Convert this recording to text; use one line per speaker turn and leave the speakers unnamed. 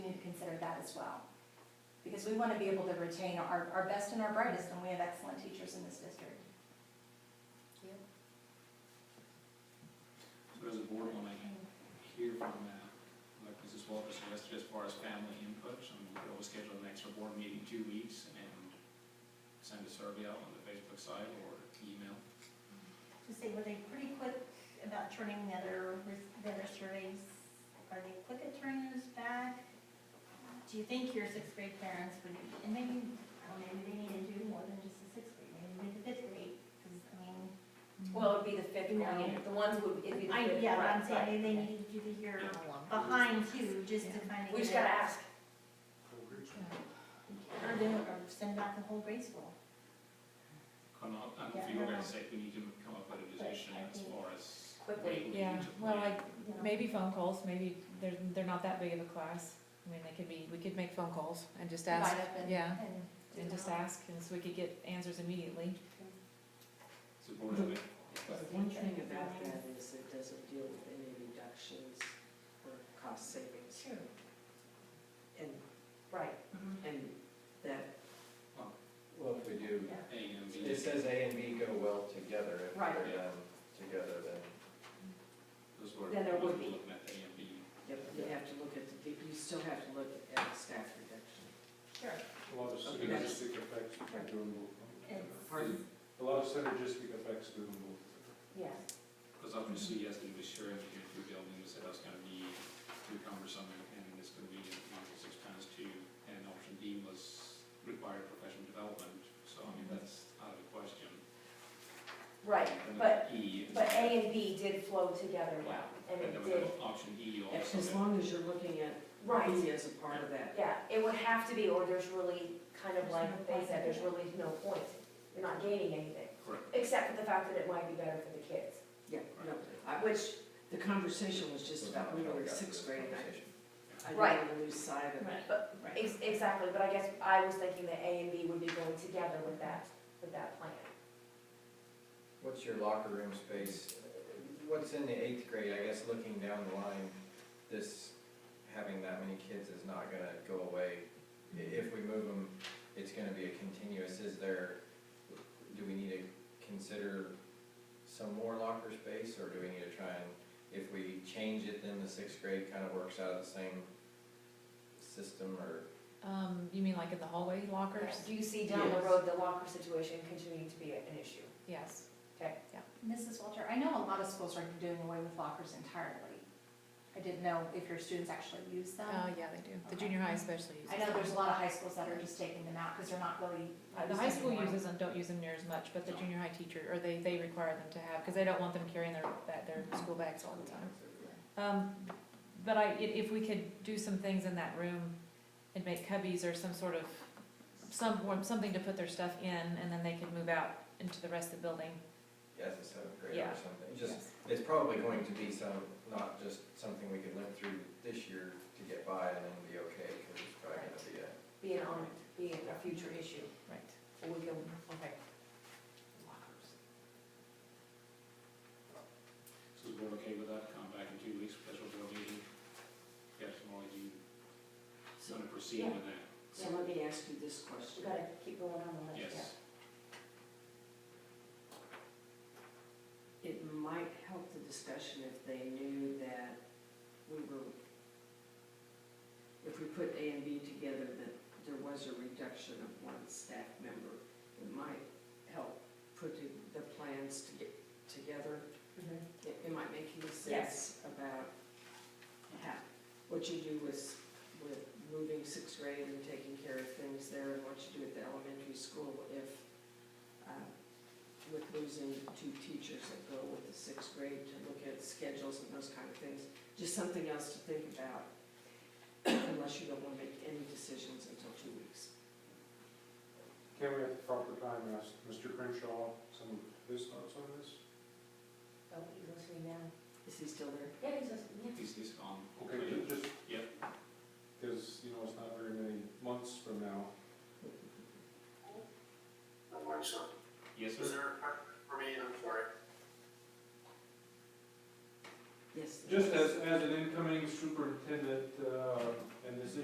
that as well. Because we want to be able to retain our, our best and our brightest, and we have excellent teachers in this district.
So does the board want to hear from, uh, like Mrs. Walker suggested, as far as family input? So we could always schedule an extra board meeting in two weeks and send a survey out on the Facebook site or email.
Just say, were they pretty quick about turning the other, the other surveys? Are they quick at turning those back? Do you think your sixth grade parents would, and maybe, I don't know, maybe they need to do more than just the sixth grade, maybe make the fifth grade, because, I mean,
Well, it'd be the fifth
No.
going in, the ones would, it'd be the
I,
fifth.
yeah, but I'm
right,
saying, maybe they
right.
need to do the year
Yeah.
behind too, just to kind of.
We just gotta ask.
Or do, or send back the whole grade school.
Come up, and
Yeah,
for your
no, no.
guys' sake, we need to come up with a decision
But I
as
think-
far as.
Quickly.
what we
Yeah,
need to
well,
plan.
like,
you know?
maybe phone calls, maybe they're, they're not that big of a class. I mean, they could be, we could make phone calls and just ask,
Divide up and-
yeah,
and
and just
Yeah.
ask, and so we could get answers immediately.
Does the board have any-
One thing about that is it doesn't deal with any reductions or cost savings.
Sure. Mm-hmm.
And,
Right,
and that,
Well, if we do,
Yeah.
A and B?
it says A and B go well together, if
Right.
they're done together, then.
Those were-
Then there would be.
Looking at A and B.
you you have to look at, the- you still have to look at the staff reduction.
Sure.
A lot of synergistic effects by doing both.
It's-
Pardon?
A lot of synergistic effects doing both.
yes.
Because obviously, yes, we was sure if you're two buildings, that that's gonna be too cumbersome, and it's gonna be multiple six times two, and option D was required professional development, so I mean, that's out of the question.
Right,
And
but,
then E is-
but A and B did flow together well, and it
And then we
did,
have option E also,
As
that
long as you're looking at
right,
B as a part of that.
yeah, it would have to be, or there's really, kind of like they said, there's really no point. You're not gaining anything,
correct,
except for the fact that it might be better for the kids.
Yeah, no, I- which, the conversation was just about, we were in
got to
sixth
the
grade, and I-
conversation.
I
Right.
don't want to lose sight of
Right.
But, ex- exactly, but I guess I was thinking that A and B would be going together with that, with that plan.
What's your locker room space? What's in the eighth grade? I guess looking down the line, this, having that many kids is not gonna go away. I- If we move them, it's gonna be a continuous. Is there, do we need to consider some more locker space? Or do we need to try and, if we change it, then the sixth grade kind of works out of the same system or?
Um, you mean like in the hallway lockers?
Do you see down the
Yes.
road the locker situation continuing to be an issue?
Yes.
Mrs. Walter, I know a lot of schools are doing away with lockers entirely. I didn't know if your students actually use
Uh,
them.
yeah, they do. The junior high especially uses
Um, I
them.
know there's a lot of high schools that are just taking them out because they're not really.
Uh, The high
used
school
anymore.
uses them, don't use them near as much, but the junior high teacher, or they, they require them to have, because they don't want them carrying their, that- their school bags all the time. Um, but I, i- if we could do some things in that room and make cubbies or some sort of, some, something to put their stuff in, and then they could move out into the rest of the building.
as a seventh grader
Yeah.
or something, just, it's probably going to be some, not just something we could live through this year to get by and then be okay, because it's probably gonna be a.
Be an on, be a future issue,
Right.
or we can, okay.
lockers.
so is the board okay with that, come back in two weeks, special board meeting? Yes, Molly, do you want to proceed with that?
So let me ask you this question.
We gotta keep going on the list, yeah.
Yes,
it might help the discussion if they knew that we were, if we put A and B together, that there was a reduction of one staff member. It might help put the- the plans to get together.
Mhm.
It, it might make any sense
Yes.
about how, what you do with, with moving sixth grade and taking care of things there, and what you do at the elementary school if, uh, with losing two teachers that go with the sixth grade to look at schedules and those kind of things. Just something else to think about, unless you don't want to make any decisions until two weeks.
Can we at the proper time ask Mr. Crenshaw some of his thoughts on this?
Oh, you go see now.
Is he still there?
Yeah, he's just, yeah.
he's, he's gone.
Okay, ju- just,
Yep.
because, you know, it's not very many months from now.
One more, sir.
Yes,
Is
sir?
there a part for me? I'm sorry.
Yes.
Just as, as an incoming superintendent, uh, and this